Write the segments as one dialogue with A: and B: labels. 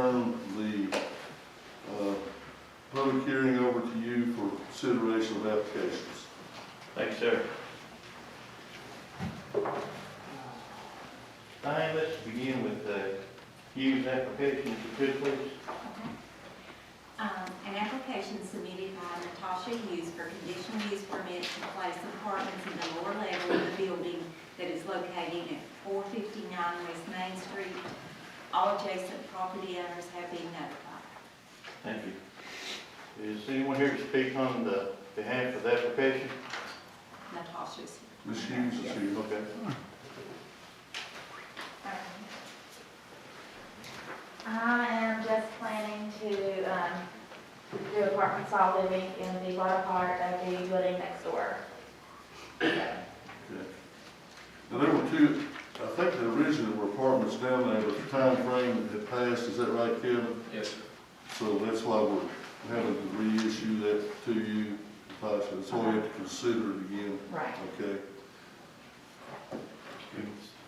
A: uh, consideration of applications.
B: Thank you, sir. Diane, let's begin with the Hughes application, if you could, please.
C: Um, An application submitted by Natasha Hughes for conditional use permit to place apartments in the lower level of the building that is located at four fifty-nine West Main Street. All adjacent property owners have been notified.
B: Thank you. Is anyone here to speak on the behalf of the application?
C: Natasha's here.
A: Ms. Hughes is here.
B: Okay.
D: I am just planning to um, do apartment style living in the latter part of the building next door.
A: Now, there were two, I think the original were apartments down there, but the time frame had passed, is that right, Kevin?
E: Yes, sir.
A: So that's why we're having to reissue that to you, possibly, so we have to consider it again,
D: Right.
A: okay?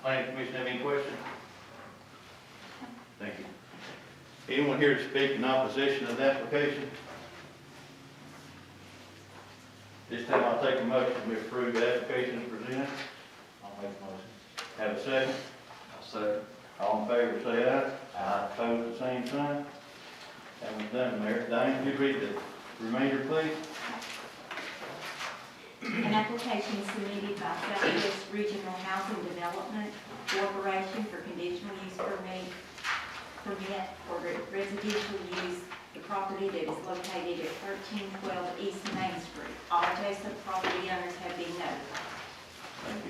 B: Planning Commission have any questions? Thank you. Anyone here to speak in opposition of the application? This time I'll take a motion to approve the application as presented. I'll make a motion. Have a second?
E: I'll second.
B: All in favor, say aye. Aye. Opposed, the same sign. That one's done, Mayor. Diane, could you read the remainder, please?
C: An application submitted by Southwest Regional Housing Development Corporation for conditional use permit, permit for re- residential use, the property that is located at thirteen twelve East Main Street. All adjacent property owners have been notified.
B: Thank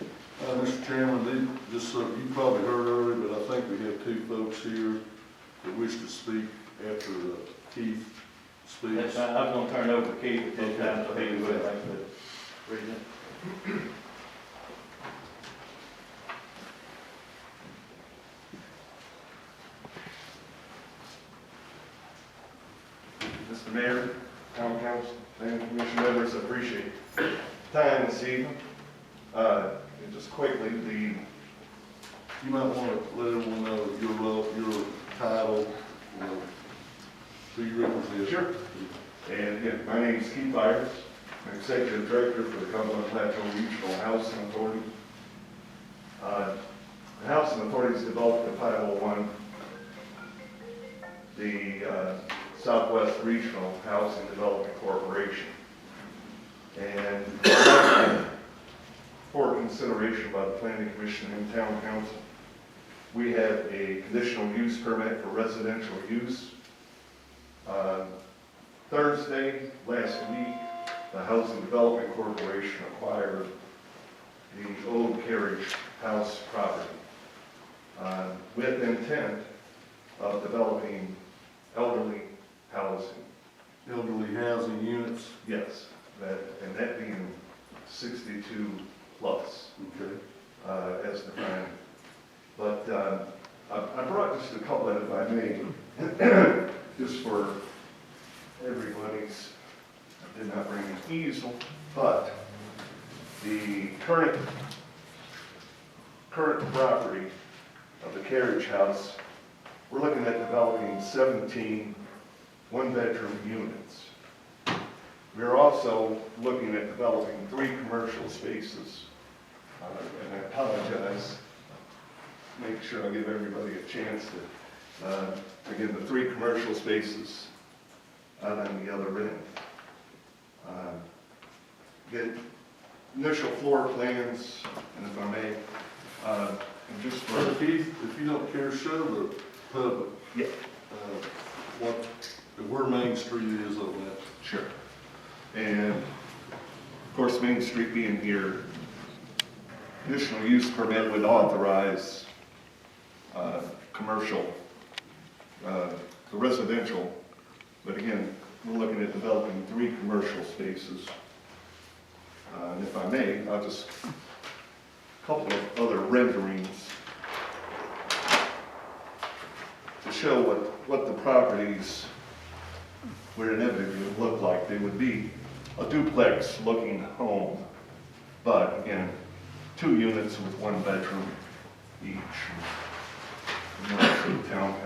B: you.
A: Uh, Mr. Chairman, the- this, uh, you probably heard earlier, but I think we have two folks here that wish to speak after uh, Keith
B: That's
A: speaks.
B: fine. I'm gonna turn it over to Keith at this time, so he will make the reading.
F: Mr. Mayor, Town Council, and Commission members, I appreciate the time this evening. Uh, and Just quickly, the
A: You might want to let everyone know your role, your title, you know, who you represent.
F: Sure. And again, my name is Keith Byers, I'm Executive Director for the Cumberland Plateau Regional Housing Authority. Uh, The Housing Authority has developed the 501, the uh, Southwest Regional Housing Development Corporation. And for consideration by the Planning Commission and Town Council, we have a conditional use permit for residential use. Uh, Thursday, last week, the Housing Development Corporation acquired the old carriage house property uh, with intent of developing elderly housing.
A: Elderly housing units,
F: Yes, that, and that being 62 plus
A: okay?
F: uh, as defined. But uh, I I brought just a couple of, if I may, just for everybody's, I did not bring an easel, but the current, current property of the carriage house, we're looking at developing 17 one-bedroom units. We're also looking at developing three commercial spaces uh, and I apologize. Make sure I give everybody a chance to, uh, again, the three commercial spaces out on the other end. Uh, The initial floor plans, and if I may, uh, and just
A: Brother
F: for,
A: Keith, if you don't care, show the public.
F: Yeah.
A: uh, What, where Main Street is on that.
F: sure. And of course, Main Street being here, additional use permit would authorize uh, commercial, uh, the residential, but again, we're looking at developing three commercial spaces. Uh, And if I may, I'll just, a couple of other renderings to show what, what the properties would inevitably look like. They would be a duplex-looking home, but again, two units with one bedroom each. And that's the town